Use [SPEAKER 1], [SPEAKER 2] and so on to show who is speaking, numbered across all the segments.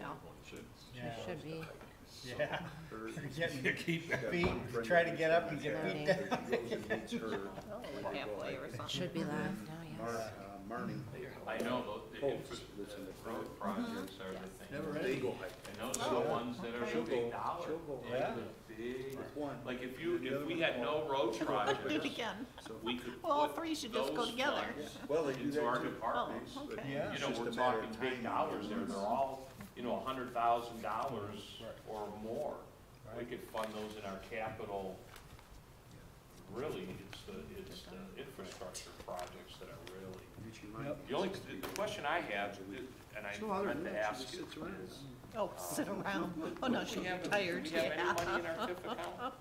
[SPEAKER 1] now.
[SPEAKER 2] Yeah.
[SPEAKER 1] Should be.
[SPEAKER 2] Yeah. Get your
[SPEAKER 3] got
[SPEAKER 2] feet,
[SPEAKER 3] one friend
[SPEAKER 2] try to
[SPEAKER 3] that
[SPEAKER 2] get
[SPEAKER 3] lives
[SPEAKER 2] up and
[SPEAKER 3] down
[SPEAKER 2] get
[SPEAKER 1] there.
[SPEAKER 2] beat
[SPEAKER 1] Yeah.
[SPEAKER 2] down.
[SPEAKER 3] He goes and meets her.
[SPEAKER 1] halfway or something.
[SPEAKER 3] And
[SPEAKER 1] Should be
[SPEAKER 3] then
[SPEAKER 1] live now,
[SPEAKER 3] Mar-
[SPEAKER 1] yes.
[SPEAKER 3] uh, Marnie,
[SPEAKER 4] I know those, the
[SPEAKER 3] Colts
[SPEAKER 4] infra-
[SPEAKER 3] lives Oh, in the
[SPEAKER 4] the road projects are the thing.
[SPEAKER 2] Never
[SPEAKER 3] they go hiking.
[SPEAKER 4] And those are the ones that are
[SPEAKER 3] She'll
[SPEAKER 4] the
[SPEAKER 3] go,
[SPEAKER 4] big dollar.
[SPEAKER 3] she'll go
[SPEAKER 4] They're
[SPEAKER 2] Yeah.
[SPEAKER 4] the big-
[SPEAKER 3] with one.
[SPEAKER 4] Like if you,
[SPEAKER 3] The other
[SPEAKER 4] if we
[SPEAKER 3] one
[SPEAKER 4] had
[SPEAKER 3] won't.
[SPEAKER 4] no road
[SPEAKER 1] Do it
[SPEAKER 4] projects,
[SPEAKER 1] again.
[SPEAKER 3] So,
[SPEAKER 4] we could
[SPEAKER 1] Well, all
[SPEAKER 4] put
[SPEAKER 1] three should just go
[SPEAKER 4] those
[SPEAKER 1] together.
[SPEAKER 4] funds
[SPEAKER 3] Well, they do
[SPEAKER 4] into our
[SPEAKER 3] that too.
[SPEAKER 4] departments.
[SPEAKER 1] Oh,
[SPEAKER 3] But
[SPEAKER 1] okay.
[SPEAKER 2] Yeah.
[SPEAKER 4] You
[SPEAKER 3] it's
[SPEAKER 4] know,
[SPEAKER 3] just
[SPEAKER 4] we're
[SPEAKER 3] a matter of
[SPEAKER 4] talking big
[SPEAKER 3] time.
[SPEAKER 4] dollars there, they're all, you know, a hundred thousand dollars
[SPEAKER 2] Right.
[SPEAKER 4] or more. We
[SPEAKER 2] Right.
[SPEAKER 4] could fund those in our capital. Really, it's the, it's the infrastructure projects that are really.
[SPEAKER 3] Get your mind.
[SPEAKER 2] Yep.
[SPEAKER 4] The only, the question I have, and I
[SPEAKER 3] It's no other
[SPEAKER 4] meant
[SPEAKER 3] than
[SPEAKER 4] to
[SPEAKER 3] that, she
[SPEAKER 4] ask
[SPEAKER 3] just
[SPEAKER 4] is,
[SPEAKER 3] sits around.
[SPEAKER 1] Oh, sit around. Oh, no,
[SPEAKER 4] do
[SPEAKER 1] she'll
[SPEAKER 4] we
[SPEAKER 1] be
[SPEAKER 4] have, do we
[SPEAKER 1] tired,
[SPEAKER 4] have
[SPEAKER 1] yeah.
[SPEAKER 4] any money in our TIF account?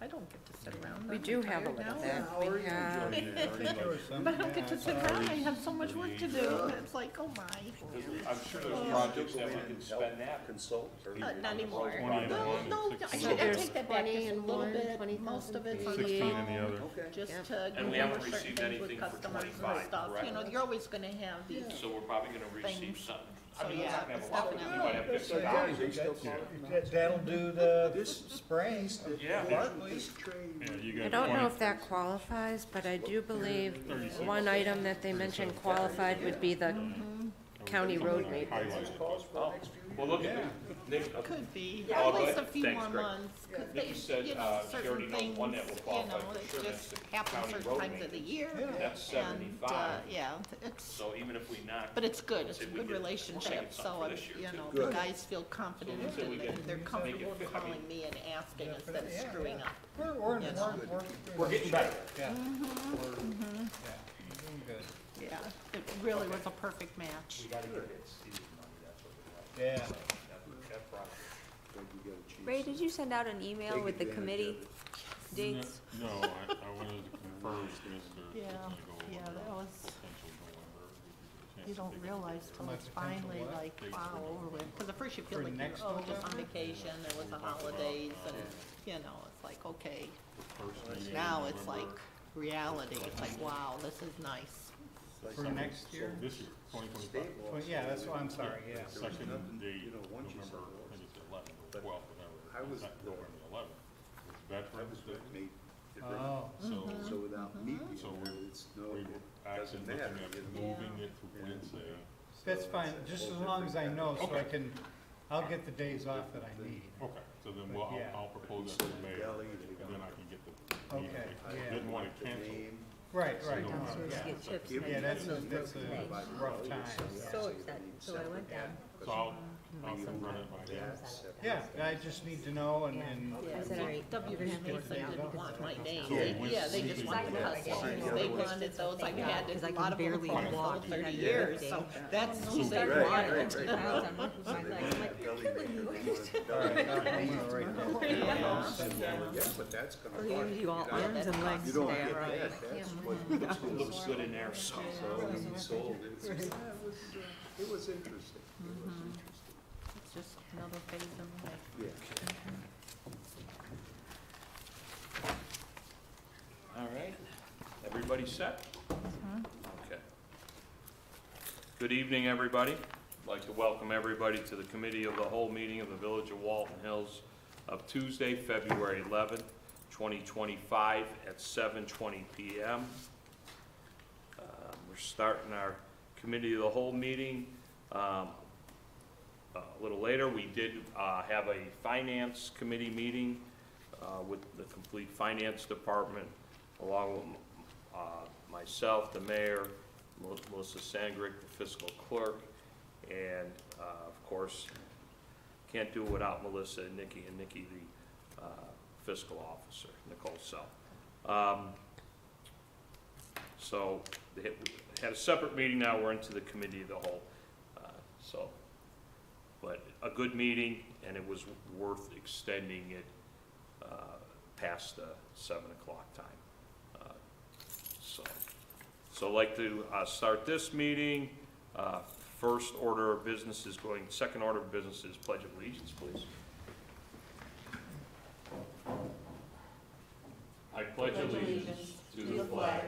[SPEAKER 1] I don't get to sit around.
[SPEAKER 5] We
[SPEAKER 1] I'm
[SPEAKER 5] do have a
[SPEAKER 1] tired
[SPEAKER 5] little
[SPEAKER 1] now.
[SPEAKER 5] bit.
[SPEAKER 3] How are you
[SPEAKER 5] Yeah.
[SPEAKER 3] enjoying that? Pretty
[SPEAKER 2] There
[SPEAKER 3] much.
[SPEAKER 2] was some-
[SPEAKER 1] But I don't get to
[SPEAKER 2] yeah,
[SPEAKER 1] sit
[SPEAKER 2] so-
[SPEAKER 1] around, I have so much work to do, it's like, oh my.
[SPEAKER 4] 'Cause I'm sure there's
[SPEAKER 1] Yeah.
[SPEAKER 4] projects
[SPEAKER 3] Go
[SPEAKER 4] that
[SPEAKER 3] in
[SPEAKER 4] we
[SPEAKER 3] and
[SPEAKER 4] could
[SPEAKER 3] help
[SPEAKER 4] spend that.
[SPEAKER 3] Consult. or-
[SPEAKER 1] Uh, Not anymore.
[SPEAKER 4] Twenty-one
[SPEAKER 1] No, no, I
[SPEAKER 5] So
[SPEAKER 1] should I
[SPEAKER 5] there's
[SPEAKER 1] take that back,
[SPEAKER 5] 20
[SPEAKER 1] just a
[SPEAKER 5] in
[SPEAKER 1] little
[SPEAKER 5] one,
[SPEAKER 1] bit,
[SPEAKER 5] 20,000
[SPEAKER 1] most of it's
[SPEAKER 5] in
[SPEAKER 1] on the
[SPEAKER 6] 16 in the
[SPEAKER 1] phone.
[SPEAKER 6] other.
[SPEAKER 3] Okay.
[SPEAKER 1] Just
[SPEAKER 5] Yep.
[SPEAKER 1] to
[SPEAKER 4] And we
[SPEAKER 1] go
[SPEAKER 4] haven't
[SPEAKER 1] over certain
[SPEAKER 4] received
[SPEAKER 1] things with
[SPEAKER 4] anything for
[SPEAKER 1] customers and
[SPEAKER 4] 25,
[SPEAKER 1] stuff, you
[SPEAKER 4] correct?
[SPEAKER 1] know, you're always gonna have these,
[SPEAKER 4] So we're probably gonna receive
[SPEAKER 1] Things.
[SPEAKER 4] something.
[SPEAKER 1] So,
[SPEAKER 4] I mean, we're
[SPEAKER 1] yeah,
[SPEAKER 4] not gonna have
[SPEAKER 1] it's
[SPEAKER 4] a lot, we
[SPEAKER 1] definitely-
[SPEAKER 4] might have
[SPEAKER 3] So,
[SPEAKER 4] fifty
[SPEAKER 3] yeah,
[SPEAKER 4] dollars.
[SPEAKER 3] they still call
[SPEAKER 6] Yeah.
[SPEAKER 3] it now.
[SPEAKER 2] That- That'll do the
[SPEAKER 3] This-
[SPEAKER 2] spring.
[SPEAKER 4] Yeah.
[SPEAKER 2] Barclays.
[SPEAKER 3] This train.
[SPEAKER 6] Yeah, you
[SPEAKER 5] I
[SPEAKER 6] got
[SPEAKER 5] don't know
[SPEAKER 6] twenty,
[SPEAKER 5] if that qualifies, but I do believe one item that they mentioned qualified would be the county road maintenance.
[SPEAKER 6] highlighted, but-
[SPEAKER 3] Calls for the next few years.
[SPEAKER 4] Well, look at, Nick,
[SPEAKER 1] could be,
[SPEAKER 4] Yeah,
[SPEAKER 1] at
[SPEAKER 4] but-
[SPEAKER 1] least a few
[SPEAKER 4] Thanks,
[SPEAKER 1] more
[SPEAKER 4] Greg.
[SPEAKER 1] months. 'cause
[SPEAKER 4] Nikki
[SPEAKER 1] they-
[SPEAKER 4] said,
[SPEAKER 1] you know,
[SPEAKER 4] uh, she
[SPEAKER 1] certain
[SPEAKER 4] already knows one that
[SPEAKER 1] things,
[SPEAKER 4] will qualify
[SPEAKER 1] you know,
[SPEAKER 4] for
[SPEAKER 1] it
[SPEAKER 4] sure,
[SPEAKER 1] just
[SPEAKER 4] that's the
[SPEAKER 1] happens
[SPEAKER 4] county
[SPEAKER 1] certain
[SPEAKER 4] road
[SPEAKER 1] times of the
[SPEAKER 4] maintenance.
[SPEAKER 1] year.
[SPEAKER 4] that's
[SPEAKER 1] And, uh,
[SPEAKER 4] seventy-five,
[SPEAKER 1] yeah, it's,
[SPEAKER 4] so even if we knock.
[SPEAKER 1] but it's good, it's
[SPEAKER 4] let's say
[SPEAKER 1] a
[SPEAKER 4] we
[SPEAKER 1] good
[SPEAKER 4] get- we're gonna
[SPEAKER 1] relationship,
[SPEAKER 4] get something
[SPEAKER 1] so,
[SPEAKER 4] for
[SPEAKER 1] I'm-
[SPEAKER 4] this year,
[SPEAKER 1] you
[SPEAKER 4] too.
[SPEAKER 1] know, the
[SPEAKER 3] Good.
[SPEAKER 1] guys feel confident
[SPEAKER 4] let's say we
[SPEAKER 1] and
[SPEAKER 4] get-
[SPEAKER 1] and they're comfortable
[SPEAKER 4] fit- I
[SPEAKER 1] calling
[SPEAKER 4] mean-
[SPEAKER 1] me and asking
[SPEAKER 2] Yeah,
[SPEAKER 1] instead of
[SPEAKER 2] yeah, yeah.
[SPEAKER 1] screwing up.
[SPEAKER 2] We're, we're, in-
[SPEAKER 1] Yes.
[SPEAKER 2] we're, we're.
[SPEAKER 4] We're getting better.
[SPEAKER 2] Yeah. We're- yeah, we're doing good.
[SPEAKER 1] Yeah, it really was a perfect match.
[SPEAKER 4] We gotta get that seed money, that's what we
[SPEAKER 2] Yeah.
[SPEAKER 4] have. That- that project.
[SPEAKER 3] Like you got a chance.
[SPEAKER 7] Ray, did you send out an email
[SPEAKER 3] Take
[SPEAKER 7] with the
[SPEAKER 3] advantage of
[SPEAKER 7] committee
[SPEAKER 3] it.
[SPEAKER 7] dates?
[SPEAKER 6] No, I, I wanted to confirm with Mr.
[SPEAKER 1] Yeah,
[SPEAKER 6] Tiffany go over
[SPEAKER 1] yeah,
[SPEAKER 6] potential
[SPEAKER 1] that was-
[SPEAKER 6] November.
[SPEAKER 1] You don't realize till it's finally like, wow, over with, because at first you feel
[SPEAKER 2] For
[SPEAKER 1] like you're,
[SPEAKER 2] next
[SPEAKER 1] oh, just on
[SPEAKER 2] November?
[SPEAKER 1] vacation, there was the holidays, and, you know, it's like, okay.
[SPEAKER 6] First meeting in
[SPEAKER 1] Now it's like
[SPEAKER 6] November.
[SPEAKER 1] reality, it's like, wow, this is nice.
[SPEAKER 3] Like
[SPEAKER 2] For
[SPEAKER 3] something
[SPEAKER 2] next
[SPEAKER 3] so
[SPEAKER 2] year?
[SPEAKER 6] This year, twenty twenty-five.
[SPEAKER 3] stable,
[SPEAKER 2] Well, yeah, that's why I'm sorry, yeah.
[SPEAKER 3] There was
[SPEAKER 6] Second
[SPEAKER 3] nothing,
[SPEAKER 6] date,
[SPEAKER 3] you know, once you
[SPEAKER 6] November,
[SPEAKER 3] settle
[SPEAKER 6] I think it's eleven or
[SPEAKER 3] But
[SPEAKER 6] twelve, whatever.
[SPEAKER 3] I was
[SPEAKER 6] Not
[SPEAKER 3] the-
[SPEAKER 6] November eleventh.
[SPEAKER 3] I
[SPEAKER 6] It's Veterans
[SPEAKER 3] was
[SPEAKER 6] Day,
[SPEAKER 3] with me. It ran.
[SPEAKER 2] Oh,
[SPEAKER 6] so
[SPEAKER 3] So without me
[SPEAKER 2] Mm-hmm.
[SPEAKER 3] being
[SPEAKER 6] So
[SPEAKER 3] there,
[SPEAKER 6] we-
[SPEAKER 3] it's no,
[SPEAKER 6] we were
[SPEAKER 3] it
[SPEAKER 6] actually
[SPEAKER 3] doesn't
[SPEAKER 6] looking
[SPEAKER 3] matter.
[SPEAKER 6] at
[SPEAKER 3] you know.
[SPEAKER 6] moving it to
[SPEAKER 3] Yeah.
[SPEAKER 6] Wednesday.
[SPEAKER 2] that's
[SPEAKER 3] So
[SPEAKER 2] fine,
[SPEAKER 3] it's a
[SPEAKER 2] just as
[SPEAKER 3] whole
[SPEAKER 2] long as I
[SPEAKER 3] different
[SPEAKER 2] know, so I
[SPEAKER 6] Okay.
[SPEAKER 2] can, I'll get the days off that I need.
[SPEAKER 6] Okay, so then
[SPEAKER 2] But
[SPEAKER 6] we'll, I'll-
[SPEAKER 2] yeah.
[SPEAKER 6] I'll propose that
[SPEAKER 3] So
[SPEAKER 6] to the
[SPEAKER 3] the
[SPEAKER 6] mayor,
[SPEAKER 3] deli,
[SPEAKER 6] and
[SPEAKER 3] they
[SPEAKER 6] then I can get the.
[SPEAKER 2] Okay,
[SPEAKER 6] meeting. I
[SPEAKER 2] yeah.
[SPEAKER 6] Didn't wanna
[SPEAKER 3] The
[SPEAKER 6] cancel.
[SPEAKER 3] name,
[SPEAKER 2] Right,
[SPEAKER 6] So
[SPEAKER 2] right,
[SPEAKER 6] no,
[SPEAKER 2] uh,
[SPEAKER 6] I'm
[SPEAKER 2] yeah.
[SPEAKER 6] not-
[SPEAKER 5] get chips
[SPEAKER 3] give
[SPEAKER 2] Yeah,
[SPEAKER 3] me
[SPEAKER 2] that's a,
[SPEAKER 3] everything,
[SPEAKER 2] that's
[SPEAKER 3] everything by
[SPEAKER 2] a
[SPEAKER 3] my
[SPEAKER 2] rough
[SPEAKER 3] own,
[SPEAKER 2] time,
[SPEAKER 3] so
[SPEAKER 2] yeah.
[SPEAKER 5] So
[SPEAKER 3] it's
[SPEAKER 5] upset,
[SPEAKER 3] gonna be
[SPEAKER 5] so I went
[SPEAKER 3] separate.
[SPEAKER 5] down.
[SPEAKER 6] So I'll, I'll run it by you.
[SPEAKER 3] Yeah, separate.
[SPEAKER 2] Yeah, I just need to know and, and,
[SPEAKER 5] I said, all right,
[SPEAKER 1] WPA
[SPEAKER 5] there's no
[SPEAKER 1] said
[SPEAKER 5] doubt.
[SPEAKER 1] didn't want my name,
[SPEAKER 6] Yeah,
[SPEAKER 1] They-
[SPEAKER 6] we-
[SPEAKER 1] yeah, they just
[SPEAKER 6] we-
[SPEAKER 1] wanted
[SPEAKER 6] we-
[SPEAKER 1] customs,
[SPEAKER 3] yeah.
[SPEAKER 1] they wanted those, I've had
[SPEAKER 5] Because I
[SPEAKER 1] a
[SPEAKER 5] can
[SPEAKER 1] lot of them
[SPEAKER 5] barely
[SPEAKER 1] for
[SPEAKER 5] walk
[SPEAKER 1] over thirty
[SPEAKER 5] that
[SPEAKER 1] years,
[SPEAKER 5] day.
[SPEAKER 1] so that's who they
[SPEAKER 6] Right,
[SPEAKER 3] right,
[SPEAKER 1] wanted.
[SPEAKER 3] right. They wanted that deli maker, they wanted the
[SPEAKER 2] all
[SPEAKER 3] deli
[SPEAKER 2] right,
[SPEAKER 3] maker.
[SPEAKER 2] I'm gonna write that. down.
[SPEAKER 3] Yeah,
[SPEAKER 1] Yeah.
[SPEAKER 3] but that's gonna.
[SPEAKER 5] Or you-
[SPEAKER 3] cost
[SPEAKER 5] you all
[SPEAKER 3] know,
[SPEAKER 5] arms and legs
[SPEAKER 3] You don't
[SPEAKER 5] there,
[SPEAKER 3] get
[SPEAKER 5] right?
[SPEAKER 3] that, that's what. that's what
[SPEAKER 4] Looks good in there, so.
[SPEAKER 3] So when you sold it, it's- yeah, it was, uh, it was interesting. It was interesting.
[SPEAKER 1] It's just another phase in life.
[SPEAKER 3] Yeah.
[SPEAKER 4] All right, Mm-hmm. everybody set? Okay. Good evening, everybody. I'd like to welcome everybody to the Committee of the Whole meeting of the Village of Walton Hills of Tuesday, February 11th, 2025, at 7:20 PM. Um, We're starting our Committee of the Whole meeting. Um, A little later, we did uh, have a Finance Committee meeting uh, with the complete finance department, along with uh, myself, the mayor, Mel- Melissa Sangrick, the fiscal clerk, and uh, of course, can't do it without Melissa and Nikki, and Nikki, the uh, fiscal officer, Nicole Self. Um, So they had- had a separate meeting, now we're into the committee of the whole. Uh, So, but a good meeting, and it was worth extending it uh, past the seven o'clock time. Uh, So, so I'd like to uh, start this meeting. Uh, First order of business is going, second order of business is pledge of allegiance, please. I pledge allegiance to the flag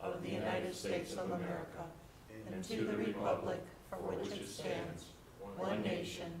[SPEAKER 4] of the United States of America and to the republic for which it stands, one nation,